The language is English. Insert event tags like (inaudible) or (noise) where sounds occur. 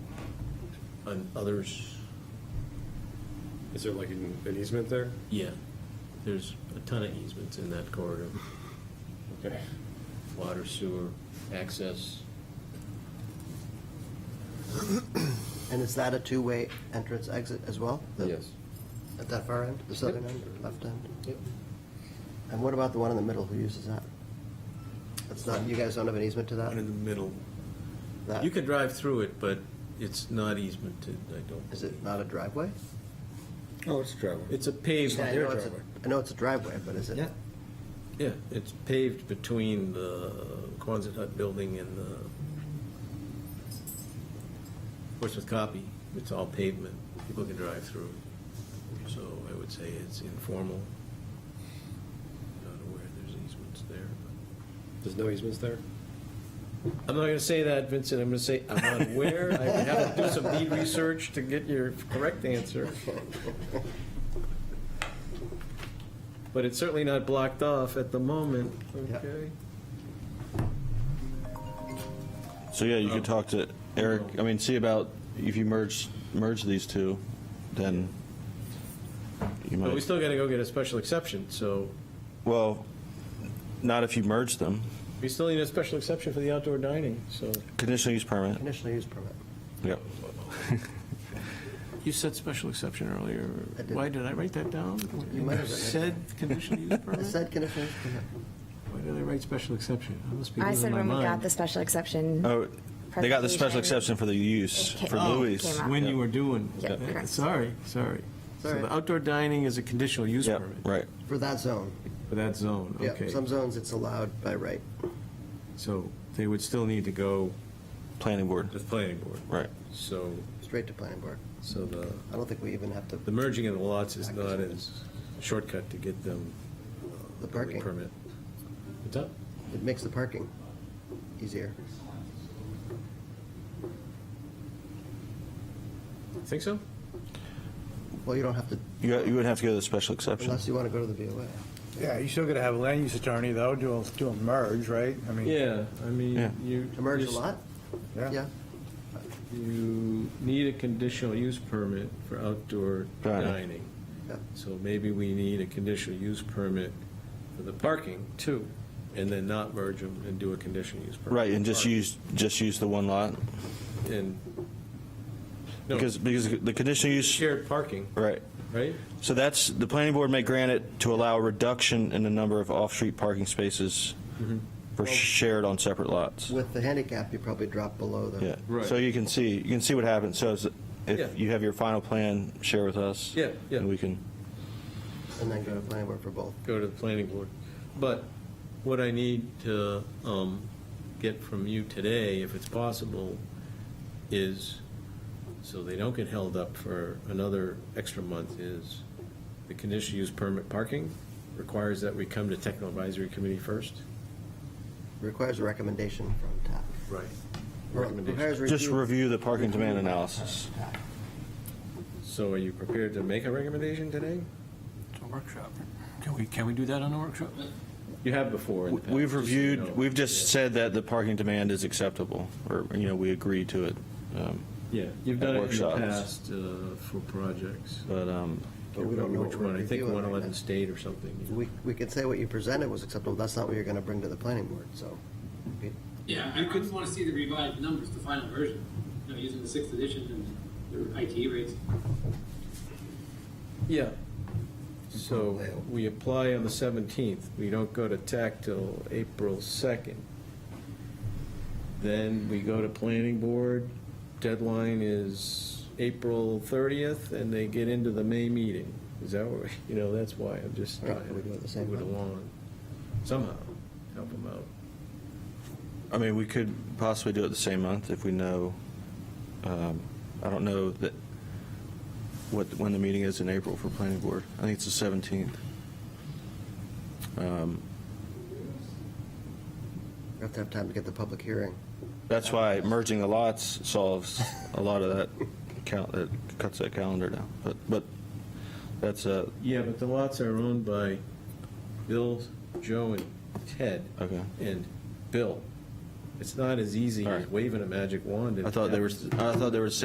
on others, Is there like an an easement there? yeah, there's a ton of easements in that corridor, Okay. water, sewer, access. And is that a two-way entrance exit as well? The- At that far end, the southern end, or left end? Yep. And what about the one in the middle, who uses that? That's not, you guys don't have an easement to One in that? the middle. That- You can drive through it, but it's not easemented, I don't. Is it not a driveway? Oh, it's a driveway. It's a paved, Yeah, I their know it's a- driveway. I know it's a driveway, but is it? Yeah. yeah, it's paved between the Quonset Hut building and the Portsmouth Copy. It's all pavement. People can drive through. So I would say it's informal. Not aware there's easements there, but. There's no easements there? I'm not going to say that, Vincent. I'm going to say I'm not aware. I would have to do some deed research to get your correct answer. But it's certainly not blocked off at the moment, Yeah. okay? So yeah, you could talk to Eric, I mean, see about, if you merge, merge these two, then you But we might, still got to go get a special exception, so well, not if you merge them, we still need a special exception for the outdoor dining, so. conditional use permit, Conditional use permit. yep. (laughs) You said special exception earlier. I did. Why did I write that down? You might have written it Said conditional use I said conditional use permit. Why did I write special exception? I must be I losing said my when we got mind. the special exception. Oh, they got the special Presentation. exception for the use, Okay. for Oh, Louis. came out. When you were doing, Yeah, okay. sorry, sorry. So Sorry. the outdoor dining is a conditional use Yep, permit right. For that zone, for that zone, yeah. okay. Some zones it's allowed by right. So they would still need to go Planning board, to the planning board. right. So, Straight to planning board. so the, I don't think we even have to, the merging of the lots is not as shortcut to get them uh, The building parking. permit. What's up? it makes the parking easier. Think so? Well, you don't have to, You, got- you would have to go to the special exception. unless you want to go to the VOA. Yeah, you're still gonna have a land use attorney though, do a, do a merge, right? I mean, Yeah, I Yeah. mean, you. To merge a lot? Yeah. You need a conditional use permit for outdoor Got it. dining. Yeah. So maybe we need a conditional use permit for the parking too, and then not merge them and do a conditional use permit. Right, and just for use, just use the one lot, parking. And, no, because, because the conditional use, shared parking, right. right? So that's, the planning board may grant it to allow a reduction in the number of off-street parking spaces Mm-hmm. for shared on separate lots. With the handicap, you probably drop below the. Yeah. Right. So you can see, you can see what happens. So is- Yeah. if you have your final plan, share with us. Yeah, yeah. And we can, And then go to planning board for both. Go to the planning board. But what I need to um, get from you today, if it's possible, is, so they don't get held up for another extra month, is the conditional use permit parking requires that we come to technical advisory committee first? Requires a recommendation from TAP. Right. Or Recommendation. requires just review the parking demand analysis. So are you prepared to make a recommendation today? It's a workshop. Can we, can we do that on a workshop? You have before. in the past, We've just so you know. reviewed, we've Yeah. just said that the parking demand is acceptable, or, you know, we agree to it. Um, Yeah, you've at done it in the workshops. past uh, for projects. But, um, But we don't know Which what we're one, I think reviewing right 111 now. State or something. you know. We, we could say what you presented was acceptable, that's not what you're gonna bring to the planning board, so. we- Yeah, I I just want to see the revised numbers, the final version, you know, using the sixth edition and the IT rates. Yeah. So we apply on the 17th. We don't go to TAC till April 2nd. Then we go to planning board. Deadline is April 30th, and they get into the May meeting. Is that what, (laughs) you know, that's why I'm just Right, trying to we do it the same move it month. along somehow, help them out. I mean, we could possibly do it the same month if we know, um, I don't know that, what, when the meeting is in April for planning board. I think it's the 17th. Um, We have to have time to get the public hearing. That's why merging the lots solves a lot of that count, that cuts that calendar down. But, but that's uh, a, Yeah, but the lots are owned by Bill, Joe, and Ted. Okay. And Bill. It's not as easy All as right. waving a magic wand. and I thought there having was, I thought there was